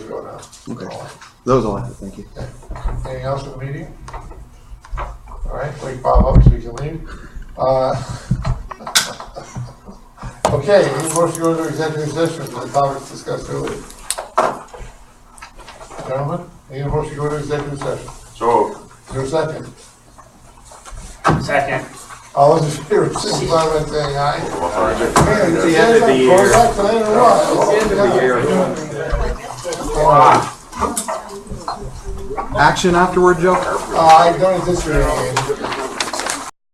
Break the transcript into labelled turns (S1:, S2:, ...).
S1: vote on.
S2: Okay. Those all I have, thank you.
S1: Anything else in the meeting? All right, wait Bob up so we can leave. Uh, Okay, we move to go into executive session for the topics discussed earlier. Gentlemen, any motion to go into executive session?
S3: So,
S1: Is there a second?
S4: Second.
S1: All those in favor, signify by saying aye. It's
S3: the end of the year.
S1: It's the end of the year. Uh,
S2: Action afterward, Joe?
S1: Uh, I've done it this year.